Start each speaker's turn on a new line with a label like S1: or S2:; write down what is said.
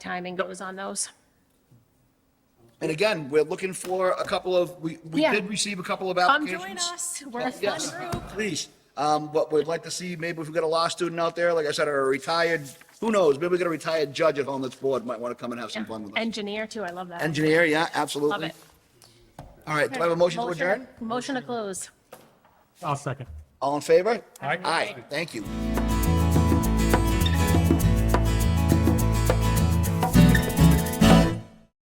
S1: timing goes on those.
S2: And again, we're looking for a couple of, we, we
S1: Yeah.
S2: did receive a couple of
S1: Come
S2: applications.
S1: join us. We're a fun
S2: Yes,
S1: group.
S2: please. Um, but we'd like to see, maybe if we got a law student out there, like I said, or a retired, who knows, maybe we got a retired judge at home that's bored, might want to come and have some fun with us.
S1: Engineer too, I love that.
S2: Engineer, yeah, absolutely.
S1: Love it.
S2: All right, do I have a motion to adjourn?
S1: Motion to close.
S3: I'll second.
S2: All in favor?
S3: Aye.
S2: Aye, thank you.